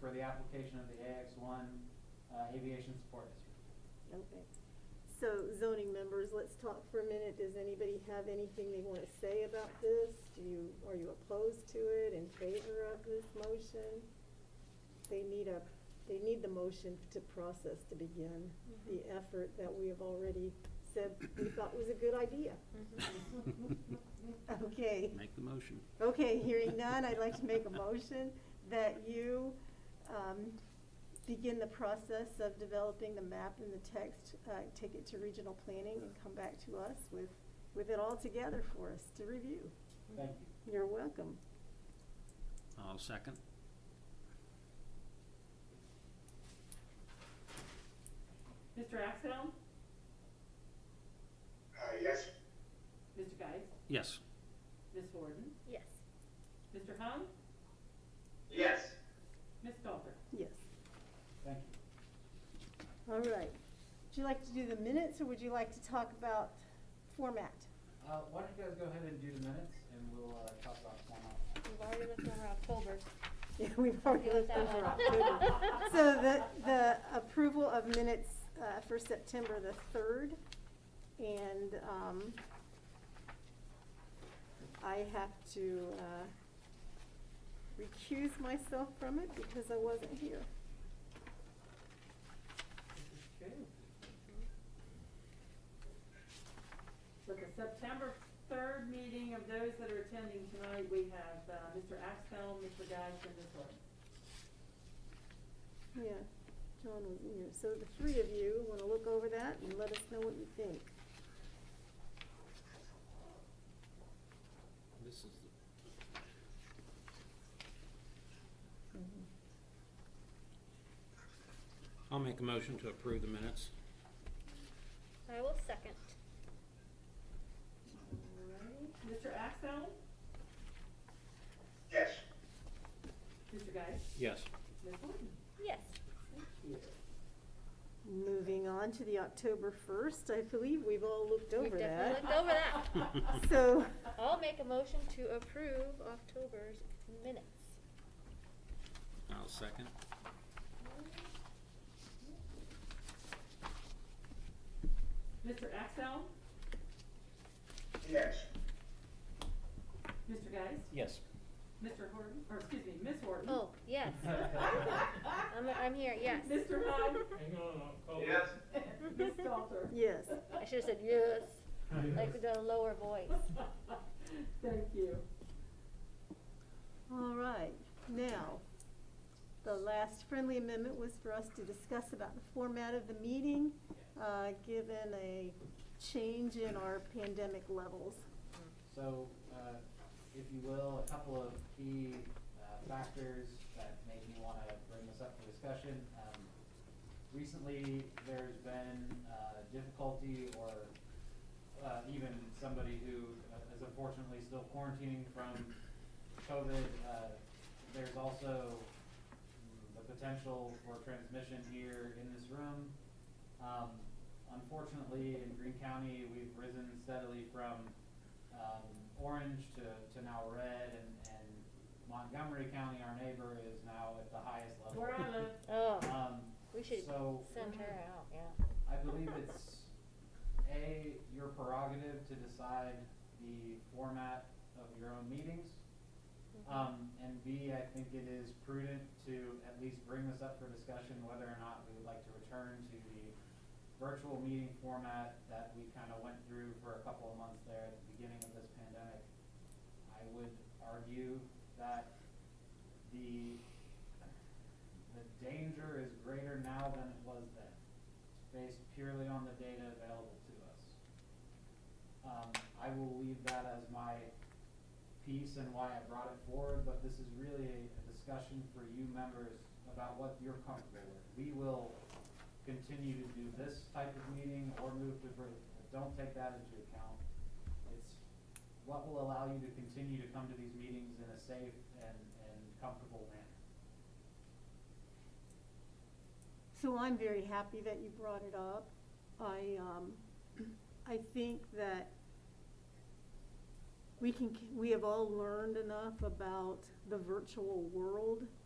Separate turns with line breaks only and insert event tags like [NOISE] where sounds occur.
for the application of the AX one uh, Aviation Support District.
Okay. So zoning members, let's talk for a minute. Does anybody have anything they want to say about this? Do you, are you opposed to it, in favor of this motion? They need a, they need the motion to process to begin the effort that we have already said we thought was a good idea. Okay.
[LAUGHS] Make the motion.
Okay, hearing none, I'd like to make a motion that you um, begin the process of developing the map and the text, uh, take it to regional planning and come back to us with, with it all together for us to review.
Thank you.
You're welcome.
I'll second.
Mr. Axell?
Uh, yes,
Mr. Geis?
Yes.
Ms. Horton?
Yes.
Mr. Hung?
yes,
Ms. Stalter?
Yes.
Thank you.
All right. Would you like to do the minutes or would you like to talk about format?
Uh, Why don't you guys go ahead and do the minutes, and we'll uh, talk about format.
We've already looked over October.
Yeah, [LAUGHS] we've already
Deal
looked
with that
over
one.
October. So the, the approval of minutes uh, for September the 3rd, and um, I have to uh, recuse myself from it because I wasn't here.
Okay. So the September 3rd meeting of those that are attending tonight, we have uh, Mr. Axell, Mr. Geis, and Ms. Horton.
Yeah, John was in here. So the three of you want to look over that and let us know what you think.
This is I'll make a motion to approve the minutes.
I will second.
All right. Mr. Axell?
yes.
Mr. Geis?
Yes.
Ms. Horton?
Yes.
Thank you.
Moving on to the October 1st, I believe we've all looked
We've
over
definitely
that.
looked over that.
So
I'll make a motion to approve October's minutes.
I'll second.
Mr. Axell?
Yes.
Mr. Geis?
Yes.
Mr. Horton, or excuse me, Ms. Horton?
Oh, yes. I'm, I'm here, yes.
Mr. Hung?
Hang on, I'll call.
Yes.
Ms.
[LAUGHS]
Stalter? [LAUGHS]
Yes,
I should have said yes, like with a lower voice.
Thank you.
all right. Now, the last friendly amendment was for us to discuss about the format of the meeting, uh, given a change in our pandemic levels.
So, uh, if you will, a couple of key uh, factors that made me want to bring this up for discussion. Um, Recently, there's been uh, difficulty or uh, even somebody who uh, is unfortunately still quarantining from COVID. uh, There's also mm, the potential for transmission here in this room. Um, Unfortunately, in Greene County, we've risen steadily from um, orange to, to now red, and and Montgomery County, our neighbor, is now at the highest level.
Where I live,
Oh,
Um,
we should
So-
send her out, yeah.
I believe it's, A, your prerogative to decide the format of your own meetings. Um, and B, I think it is prudent to at least bring this up for discussion whether or not we would like to return to the virtual meeting format that we kind of went through for a couple of months there at the beginning of this pandemic. I would argue that the, the danger is greater now than it was then based purely on the data available to us. Um, I will leave that as my piece and why I brought it forward, but this is really a a discussion for you members about what you're comfortable with. We will continue to do this type of meeting or move to, vir- don't take that into account. It's what will allow you to continue to come to these meetings in a safe and, and comfortable manner.
So I'm very happy that you brought it up. I, um, I think that we can, we have all learned enough about the virtual world uh,